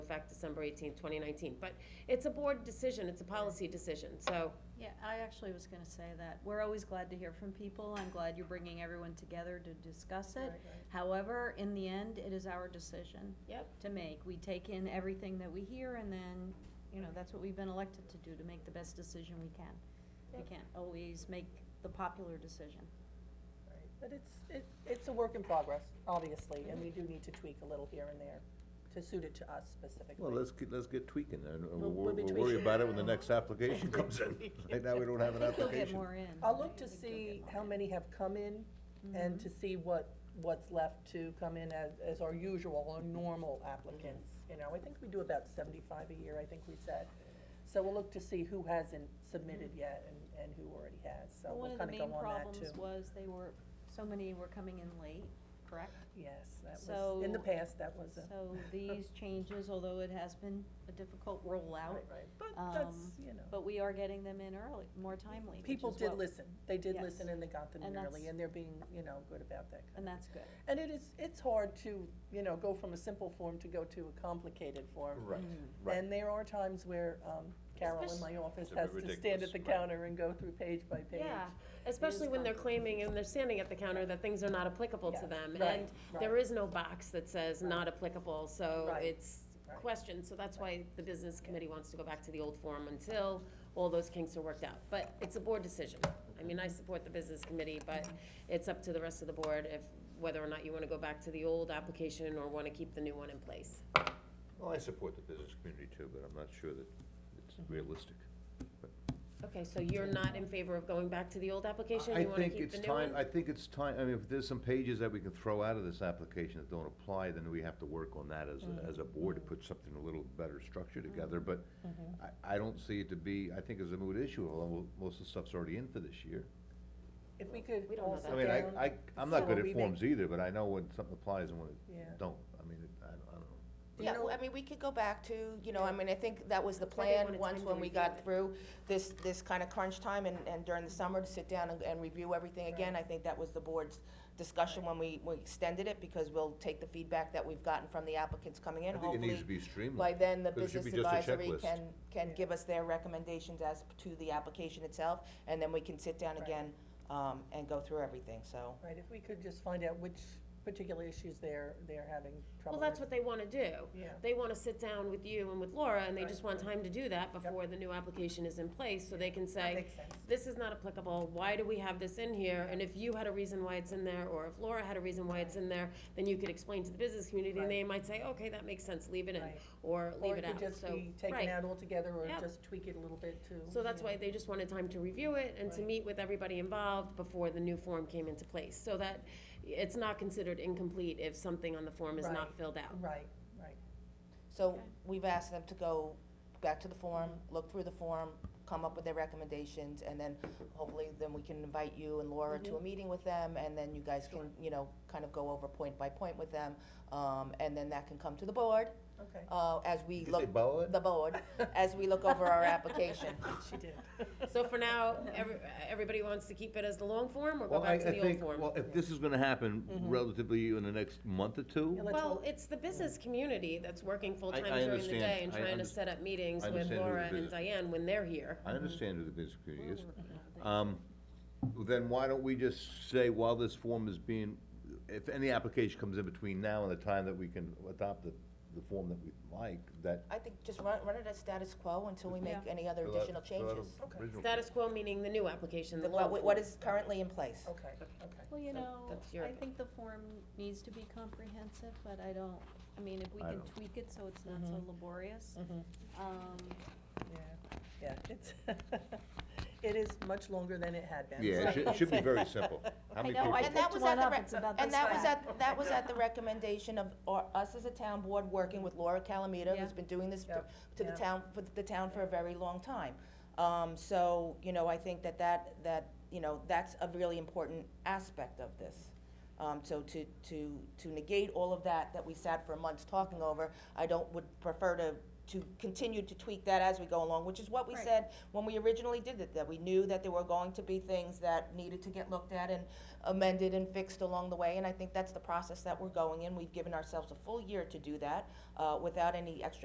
effect December eighteenth, twenty nineteen. But it's a board decision, it's a policy decision, so, Yeah, I actually was gonna say that. We're always glad to hear from people. I'm glad you're bringing everyone together to discuss it. However, in the end, it is our decision yep. to make. We take in everything that we hear and then, you know, that's what we've been elected to do, to make the best decision we can. We Yep. can't always make the popular decision. Right, But it's, it, it's a work in progress, obviously, and we do need to tweak a little here and there to suit it to us specifically. Well, let's get, let's get tweaking, and We'll- we'll, we'll we'll be we'll worry tweaking. about it when the next application comes in. Right now, we don't have an I think you'll get application. more in. I'll look to I think you'll see get more Mm-hmm. how in. many have come in and to see what, what's left to come in as, as our usual or normal applicants. You know, I think we do about seventy-five a year, I think we said. So we'll look to see who hasn't submitted yet and, and who already has, so Well, we'll kinda go on One that of the too. main problems was they were, so many were coming in late, correct? Yes, that was, in the So- past, that was a, So these changes, although it has been a difficult rollout, right, right, but that's, um, you know. but we are getting them in early, more timely, which People is did what- listen, they did Yes. listen and they got them in And early, that's- and they're being, you know, good about that. And that's good. And it is, it's hard to, you know, go from a simple form to go to a complicated form. Right, right. And there are times where, um, Carol in my office It's a bit has to stand at ridiculous, the right. counter and go through page by page. Yeah, especially when they're claiming and they're standing at the counter that things are not applicable to Yeah, them. right, And there right. is no box that says not applicable, so Right, it's right. questioned. So that's why the business committee wants to go back to the old form until all those kinks are worked out. But it's a board decision. I mean, I support the business committee, but it's up to the rest of the board if, whether or not you want to go back to the old application or want to keep the new one in place. Well, I support the business community too, but I'm not sure that it's realistic. Okay, so you're not in favor of going back to the old application? I You want to think keep it's the new time, I one? think it's time, I mean, if there's some pages that we can throw out of this application that don't apply, then we have to work on that as, a- as a board to put something a little better structure together, but I, I don't see it to be, I think it's a moot issue, although most of the stuff's already in for this year. If we could We don't know all that. I sit mean, I, down. I, I'm not good So we at may- forms either, but I know when something applies and when Yeah. it don't, I mean, it- I, don't- I don't know. Do you Yeah, know- well, I mean, we could go back to, you know, I mean, I think that was the That's why they plan, wanted once time to when we review got it. through this, this kind of crunch time and, and during the summer to sit down and, and review everything again. I think that was the board's discussion when we, we extended it, because we'll take the feedback that we've gotten from the applicants coming in, I think it needs hopefully. to be By streamlined. then, the But it should business be just a advisory checklist. can, can Yeah. give us their recommendations as to the application itself, and then we can sit down Right. again, um, and go through everything, so. Right, if we could just find out which particular issues they're, they're having trouble Well, with. that's what they want to do. Yeah. They want to sit down with you and with Laura, and they Right. just want time to do that before the new application is in place, so they can say, Makes sense. this is not applicable, why do we have this in here? And if you had a reason why it's in there, or if Laura had a reason why it's in there, then you could explain to the business community, and they might say, okay, that makes sense, leave it in, Right. or leave it Or it out, could just so, be taken right. out altogether, or Yep. just tweak it a little bit too. So that's you know. why they just wanted time to review it and to Right. meet with everybody involved before the new form came into place, so that it's not considered incomplete if something on the form is Right. not filled out. Right, right. So we've asked them to go back to the form, look through the form, come up with their recommendations, and then hopefully then we can invite you and Laura to a meeting with them, and then you guys can, you know, kind of go over point by point with them. Um, and then that can come to the board, Okay, uh, as we Did you say look, board? the board, as we look over our application. she did. So for now, every, everybody wants to keep it as the long form or go Well, I, I back to the old think, form? well, if this is gonna happen relatively in the next month or two, Yeah, let's Well, hope- it's the business community that's working full-time I during the understand. day and I trying to underst- set up meetings I with understand who Laura the and business- Diane when they're here. I understand who the business community Mm-hmm. is. Um, Then why don't we just say while this form is being, if any application comes in between now and the time that we can adopt the, the form that we like, that. I think just run, run it as status quo until we make any other fill out- additional fill out changes. a original- Status quo meaning the new application, the The- long What, what form. is currently in place. Okay, okay. Well, you know, that's your I think the form needs to be comprehensive, but I don't, I mean, if we I can don't. tweak it so it's not so laborious. Um, Yeah, yeah, it's, it is much longer than it had been. Yeah, it should, it should be very simple. How I many know, I people? And that picked was one at the, up, it's re- about and this that was fat. at, that was at the recommendation of our- us as a town board, working with Laura Calamita, who's Yeah. been doing this for- Yep, to the yeah. town, for the town for a very long time. Um, so, you know, I think that that, that, you know, that's a really important aspect of this. Um, so to, to, to negate all of that, that we sat for months talking over, I don't, would prefer to, to continue to tweak that as we go along, which is what we Right. said when we originally did it, that we knew that there were going to be things that needed to get looked at and amended and fixed along the way, and I think that's the process that we're going in. We've given ourselves a full year to do that, uh, without any extra